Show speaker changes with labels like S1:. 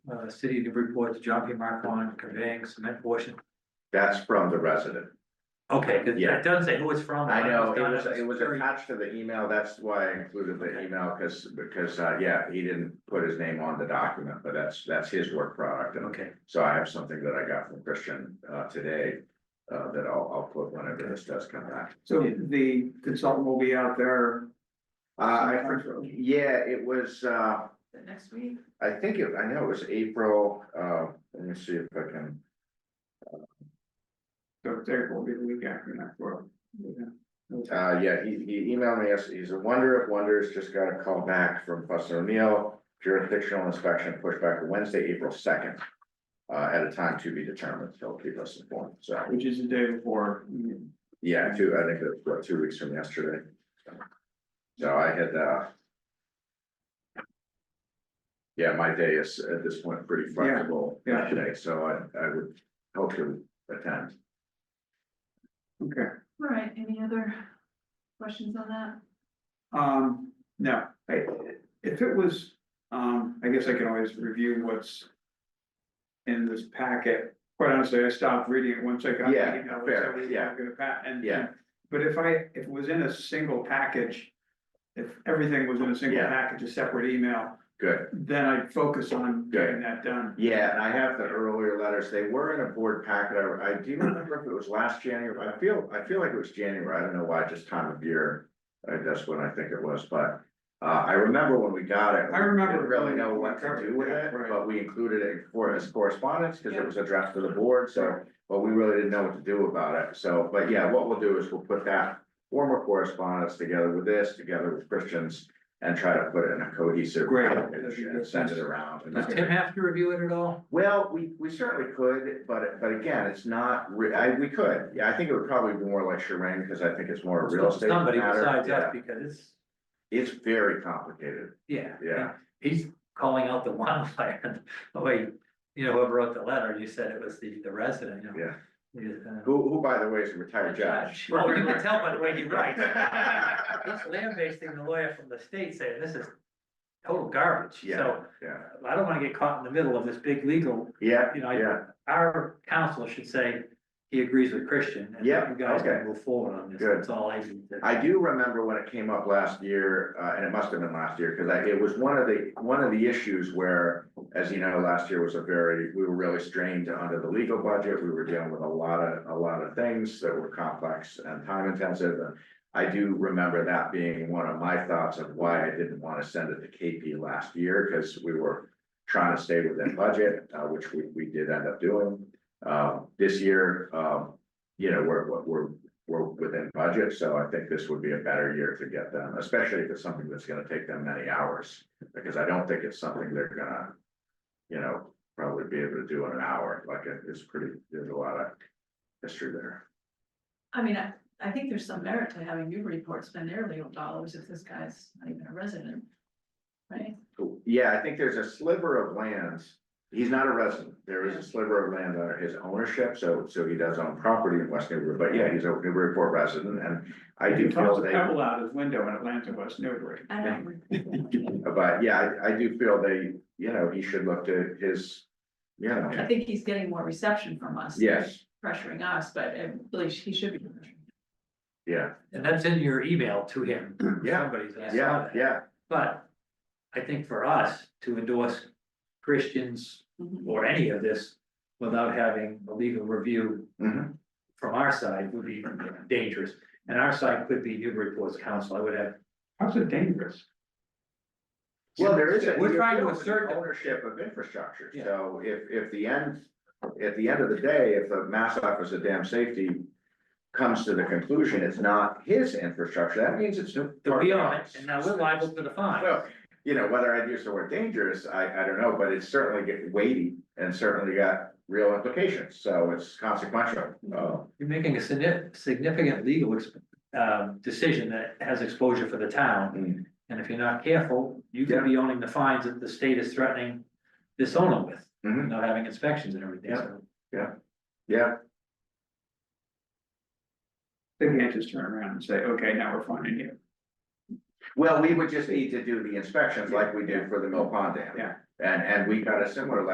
S1: uh, city to report to John P. Marcon conveying cement portion.
S2: That's from the resident.
S1: Okay, cause
S2: Yeah.
S1: it doesn't say who it's from.
S2: I know, it was,
S1: I
S2: it was
S1: curious.
S2: attached to the email, that's why I included the email, because, because, uh, yeah, he didn't put his name on the document, but that's, that's his work product. And
S1: Okay,
S2: So I have something that I got from Christian, uh, today, uh, that I'll, I'll put whenever this does come back.
S3: So the consultant will be out there.
S2: Uh, I, for- yeah, it was, uh,
S4: The next week,
S2: I think it, I know it was April, uh, let me see if I can,
S3: So it's April, will be the week after next work.
S2: Uh, yeah, he, he emailed me, yes, he's a wonder of wonders, just got a call back from Fussin O'Neill, jurisdictional inspection pushed back to Wednesday, April second. Uh, at a time to be determined, he'll keep us informed, so,
S3: Which is the day before.
S2: yeah, two, I think it was, what, two weeks from yesterday. So- So I had, uh. Yeah, my day is at this point pretty flexible
S3: yeah.
S2: today, so I, I would hope to attend.
S3: Okay,
S4: all right, any other questions on that?
S3: um, no, I, if it was, um, I guess I can always review what's. In this packet, quite honestly, I stopped reading it once I got. the
S2: Yeah,
S3: email, so
S2: fair,
S3: I was
S2: yeah.
S3: Gonna pat, and.
S2: Yeah.
S3: But if I, if it was in a single package. If everything was in a single
S2: Yeah.
S3: package, a separate email,
S2: Good.
S3: then I'd focus on getting that done.
S2: Yeah, and I have the earlier letters, they were in a board packet, I, I do remember if it was last January, I feel, I feel like it was January, I don't know why, just time of year. I that's when I think it was, but, uh, I remember when we got it.
S3: I remember.
S2: Didn't really know what to
S3: Covered,
S2: do with
S3: yeah,
S2: it,
S3: right.
S2: but we included it for as correspondence, cause it was a draft to the board, so, but we really didn't know what to do about it, so, but yeah, what we'll do is we'll put that. Former correspondence together with this, together with Christian's, and try to put it in a cohesive.
S3: Great.
S2: package And send it around. and
S1: does
S2: that's-
S1: Tim have to review it at all?
S2: well, we, we certainly could, but, but again, it's not, re- I, we could, yeah, I think it would probably be more like Sharon, because I think it's more a real estate
S1: Somebody
S2: matter.
S1: besides us,
S2: Yeah.
S1: because it's,
S2: It's very complicated,
S1: yeah.
S2: Yeah.
S1: He's calling out the wildfire, oh wait, you know, whoever wrote the letter, you said it was the, the resident, you know?
S2: yeah,
S1: He's, uh,
S2: who, who, by the way, is a retired judge.
S1: Well, you can tell by the way he writes. This land based thing, the lawyer from the state saying this is total garbage,
S2: Yeah,
S1: so
S2: yeah,
S1: uh, I don't wanna get caught in the middle of this big legal.
S2: yeah,
S1: You know, I-
S2: yeah,
S1: Our counsel should say he agrees with Christian and
S2: Yeah,
S1: you guys
S2: okay.
S1: can move forward on this,
S2: Good.
S1: that's all I need to.
S2: I do remember when it came up last year, uh, and it must have been last year, because I, it was one of the, one of the issues where, as you know, last year was a very, we were really strained under the legal budget, we were dealing with a lot of, a lot of things that were complex and time intensive, and I do remember that being one of my thoughts of why I didn't want to send it to KP last year, because we were trying to stay within budget, uh, which we, we did end up doing. Um, this year, um, you know, we're, we're- we're, we're within budget, so I think this would be a better year to get them, especially if it's something that's gonna take them many hours. Because I don't think it's something they're gonna, you know, probably be able to do in an hour, like it- it's pretty, there's a lot of history there.
S4: I mean, I, I think there's some merit to having Newburyport spend their legal dollars if this guy's not even a resident. Right?
S2: Yeah, I think there's a sliver of land. He's not a resident. There is a sliver of land under his ownership, so, so he does own property in West Newbury, but yeah, he's a Newburyport resident and I
S3: He
S2: do
S3: tossed
S2: feel
S3: a
S2: they.
S3: pebble out his window in Atlanta, West Newbury.
S4: I don't. know.
S2: But yeah, I, I do feel they, you know, he should look to his, you
S4: I
S2: know,
S4: think he's getting more reception from us. than
S2: yes,
S4: Pressuring us, but at least he should be. pressuring.
S2: yeah,
S1: And that's in your email to him.
S2: Yeah,
S1: Somebody's, I saw
S2: yeah,
S1: that.
S2: yeah,
S1: But I think for us to endorse Christians
S4: Mhm.
S1: or any of this without having a legal review
S2: mhm,
S1: from our side would be dangerous. And our side could be Newburyport's counsel, I would have,
S3: How's it dangerous?
S2: well, there is. a-
S1: We're trying to
S2: there's
S1: assert that-
S2: Ownership of infrastructure,
S1: Yeah.
S2: so if, if the end, at the end of the day, if the Mass Office of Dam Safety. Comes to the conclusion it's not his infrastructure, that means it's.
S1: that we own it, and now we're liable for the fine.
S2: Well, you know, whether I'd use the word dangerous, I, I don't know, but it's certainly get weighty and certainly got real implications, so it's consequential, uh,
S1: You're making a signif- significant legal exp- um, decision that has exposure for the
S2: Mm.
S1: town. And if you're not careful, you could be owning the fines that the state is threatening this owner with,
S2: Mhm.
S1: not having inspections and everything, so.
S2: yeah.
S3: They can't just turn around and say, okay, now we're finding you.
S2: Well, we would just need to do the inspections like we did for the Mill Pond Dam.
S3: Yeah.
S2: And, and we got a similar letter